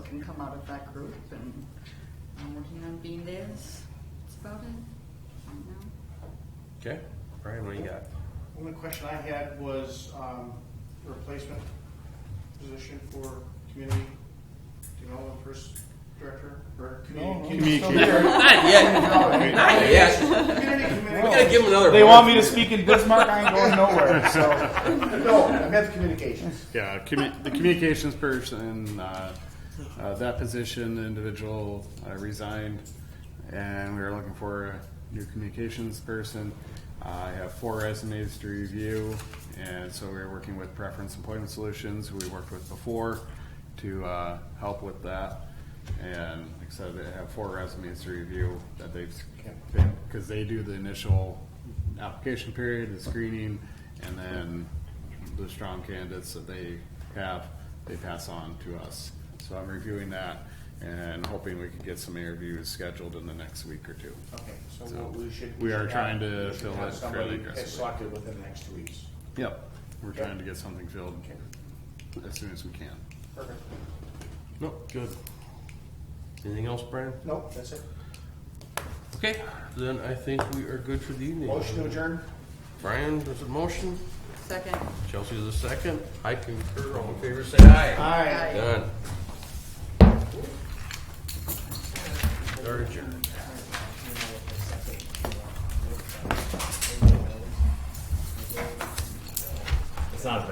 can come out of that group and I'm working on being theirs. That's about it. I don't know. Okay, Brian, what do you got? Only question I had was um, a replacement position for community development first director or community. Communicate. Not yet, not yet. Community committee. We gotta give him another. They vote. want me to speak in Bismarck. I ain't going nowhere. So No, I meant the communications. Yeah, commu- the communications person, uh, uh, that position, the individual uh, resigned, and we were looking for a new communications person. I have four resumes to review, and so we were working with Preference Employment Solutions, who we worked with before, to uh, help with that. And like I said, they have four resumes to review that they've, because they do the initial application period, the screening, and then the strong candidates that they have, they pass on to us. So I'm reviewing that and hoping we can get some interviews scheduled in the next week or two. Okay, so So we should. we are should trying have- to we should fill have it somebody fairly that's aggressively. Selected within the next two weeks. Yep, we're trying to get something filled as soon as we can. Perfect. Nope, good. Anything else, Brian? Nope, that's it. Okay, then I think we are good for the evening. Motion to adjourn. Brian, there's a motion. Second. Chelsea's a second. I concur. All in favor, say aye. Aye. Aye. Done. Third adjourned. It's not as bad.